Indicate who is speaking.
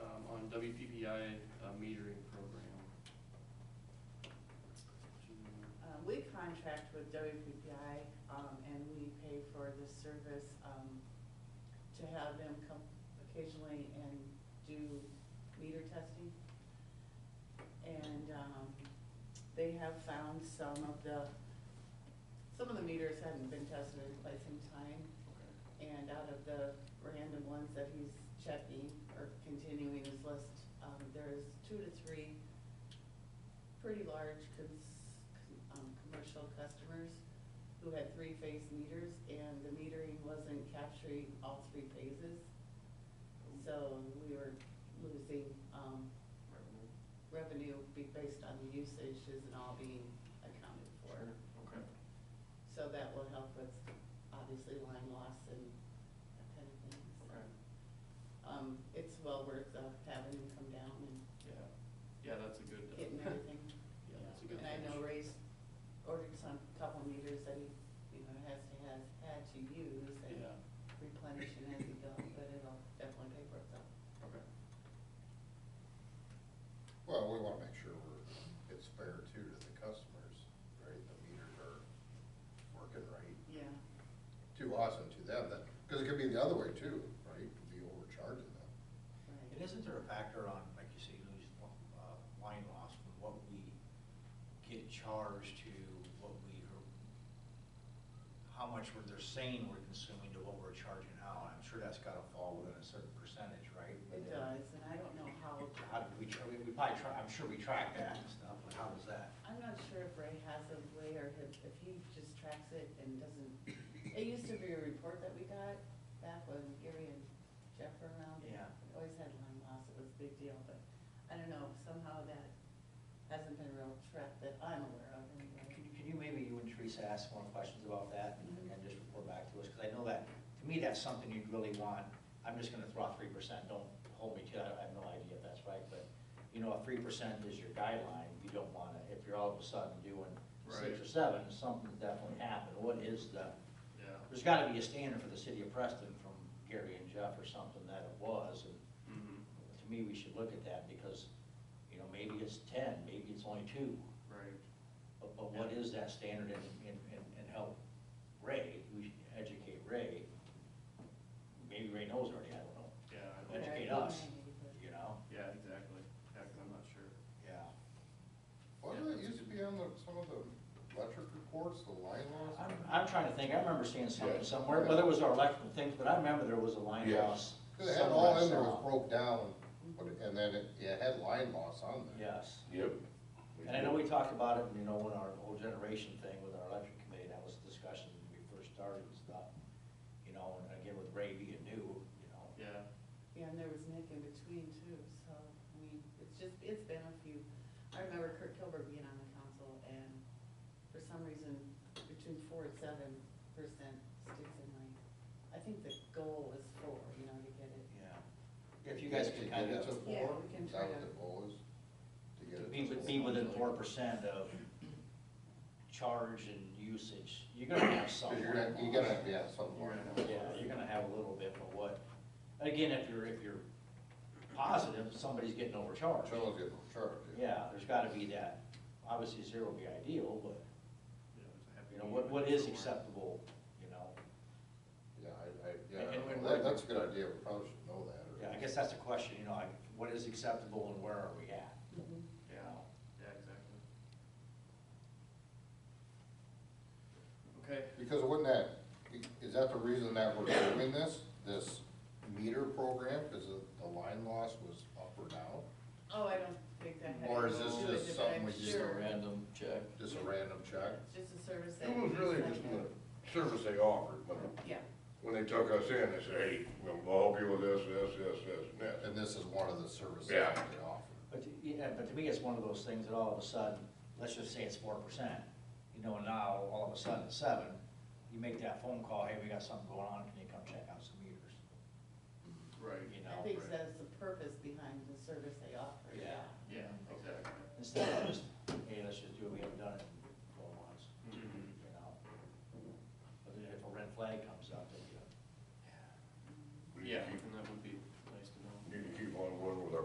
Speaker 1: um, WPPI uh, metering program.
Speaker 2: Um, We contract with WPPI, um, and we pay for the service um, to have them come occasionally and do meter testing. And um, they have found some of the, some of the meters haven't been tested in quite some time.
Speaker 1: Okay.
Speaker 2: And out of the random ones that he's checking or continuing his list, um, there's two to three pretty large cons, um, commercial customers who had three-phase meters and the metering wasn't capturing all three phases. So we were losing, um,
Speaker 1: Revenue.
Speaker 2: revenue be- based on the usages and all being accounted for.
Speaker 1: Okay.
Speaker 2: So that will help with, obviously, line loss and that kind of thing.
Speaker 1: Okay.
Speaker 2: So um, It's well worth uh, having him come down
Speaker 1: Yeah, yeah, that's a good. uh,
Speaker 2: and getting everything.
Speaker 1: Yeah, that's a good
Speaker 2: And I know
Speaker 1: approach.
Speaker 2: Ray's ordered some, couple meters that he, you know, has to, has had to use
Speaker 1: Yeah.
Speaker 2: and replenishing as he goes, but it'll definitely pay for itself.
Speaker 1: Okay,
Speaker 3: Well, we want to make sure we're, it's fair too to the customers, right? The meters are working right
Speaker 2: Yeah,
Speaker 3: to us and to them, that, because it could be the other way too, right? Could be overcharging them.
Speaker 2: right.
Speaker 4: And isn't there a factor on, like you say, lose, uh, line loss from what we get charged to what we, how much we're, they're saying we're consuming to what we're charging out? I'm sure that's gotta fall within a certain percentage, right?
Speaker 2: It does, and I don't know how.
Speaker 4: How do we, try- we we probably try, I'm sure we track that and stuff, but how does that?
Speaker 2: I'm not sure if Ray has a way or if if he just tracks it and doesn't, it used to be a report that we got back when Gary and Jeff were around.
Speaker 4: Yeah.
Speaker 2: We Always had line loss, it was a big deal, but I don't know, somehow that hasn't been real tracked that I'm aware of
Speaker 4: Can
Speaker 2: anyway.
Speaker 4: you- can you, maybe you and Teresa ask more questions about that and then just report back to us? Because I know that, to me, that's something you'd really want. I'm just going to throw out three percent, don't hold me to it, I have no idea if that's right, but, you know, if three percent is your guideline, you don't want to, if you're all of a sudden doing six
Speaker 1: Right.
Speaker 4: or seven, something definitely happened. What is the,
Speaker 1: yeah.
Speaker 4: there's got to be a standard for the city of Preston from Gary and Jeff or something that it was, and
Speaker 1: Mhm.
Speaker 4: to me, we should look at that because, you know, maybe it's ten, maybe it's only two.
Speaker 1: Right,
Speaker 4: But, but what is that standard and, and, and- and help Ray, we should educate Ray. Maybe Ray knows already, I don't know.
Speaker 1: yeah, I don't-
Speaker 2: Right.
Speaker 4: Educate us, you know?
Speaker 1: yeah, exactly, yeah, 'cause I'm not sure.
Speaker 4: Yeah.
Speaker 3: Wasn't it used to be on the, some of the electric reports, the line loss?
Speaker 4: I'm, I'm trying to think, I remember seeing something
Speaker 3: Yeah.
Speaker 4: somewhere, whether it was our electrical things, but I remember there was a line loss.
Speaker 3: Because it had all in there was broke down, but it- and then it, it had line loss on there.
Speaker 4: Yes.
Speaker 5: Yep.
Speaker 4: And I know we talked about it, you know, when our whole generation thing with our electric committee, that was a discussion when we first started and stuff. You know, and again with Ray being new, you know.
Speaker 1: Yeah,
Speaker 2: Yeah, and there was Nick in between too, so, I mean, it's just, it's been a few, I remember Kurt Kilberg being on the council, and for some reason, between four and seven percent sticks in my, I think the goal is four, you know, to get it.
Speaker 4: Yeah. If you guys
Speaker 3: To
Speaker 4: can
Speaker 3: get
Speaker 4: kind
Speaker 3: it
Speaker 4: of.
Speaker 3: to
Speaker 2: Yeah,
Speaker 3: four,
Speaker 2: we can
Speaker 3: is that
Speaker 2: try
Speaker 3: what
Speaker 2: to-
Speaker 3: the goal is? To get it
Speaker 4: To
Speaker 3: to
Speaker 4: Be, with-
Speaker 3: four?
Speaker 4: be within four percent of charge and usage, you're gonna have some.
Speaker 3: Because you're gonna, you're gonna have to have some line loss.
Speaker 4: Yeah, you're gonna have a little bit, but what, again, if you're, if you're positive, somebody's getting overcharged.
Speaker 3: Someone's getting charged.
Speaker 4: Yeah, there's gotta be that, obviously zero would be ideal, but,
Speaker 1: yeah. there's a happy
Speaker 4: you know,
Speaker 1: medium
Speaker 4: what, what is
Speaker 1: somewhere.
Speaker 4: acceptable, you know?
Speaker 3: Yeah, I, I, yeah,
Speaker 4: And- and-
Speaker 3: that, that's a good idea, we probably should know that. or-
Speaker 4: Yeah, I guess that's the question, you know, like, what is acceptable and where are we at?
Speaker 2: Mhm.
Speaker 1: Yeah, yeah, exactly. Okay,
Speaker 3: Because wouldn't that, is that the reason that we're doing this, this meter program, because the line loss was up or down?
Speaker 2: Oh, I don't think that had.
Speaker 3: Or is
Speaker 2: anything to do
Speaker 3: this
Speaker 2: with it,
Speaker 3: just
Speaker 2: but
Speaker 3: something
Speaker 2: I'm
Speaker 3: we just
Speaker 2: sure
Speaker 5: Random check.
Speaker 3: Just a random check?
Speaker 2: It's just a service that.
Speaker 5: It was really
Speaker 2: he's
Speaker 5: just
Speaker 2: like
Speaker 5: a service they offered, but
Speaker 2: that. Yeah,
Speaker 5: when they took us in, they said, hey, we'll help you with this, this, this, this, and this.
Speaker 3: And this is one of the services
Speaker 5: Yeah.
Speaker 3: that they offer.
Speaker 4: But, to- yeah, but to me, it's one of those things that all of a sudden, let's just say it's four percent, you know, and now all of a sudden it's seven. You make that phone call, hey, we got something going on, can you come check out some meters? You
Speaker 1: right,
Speaker 2: I
Speaker 4: know,
Speaker 2: think
Speaker 1: right.
Speaker 2: that's the purpose behind the service they offer.
Speaker 4: yeah.
Speaker 1: yeah, exactly.
Speaker 4: Instead of just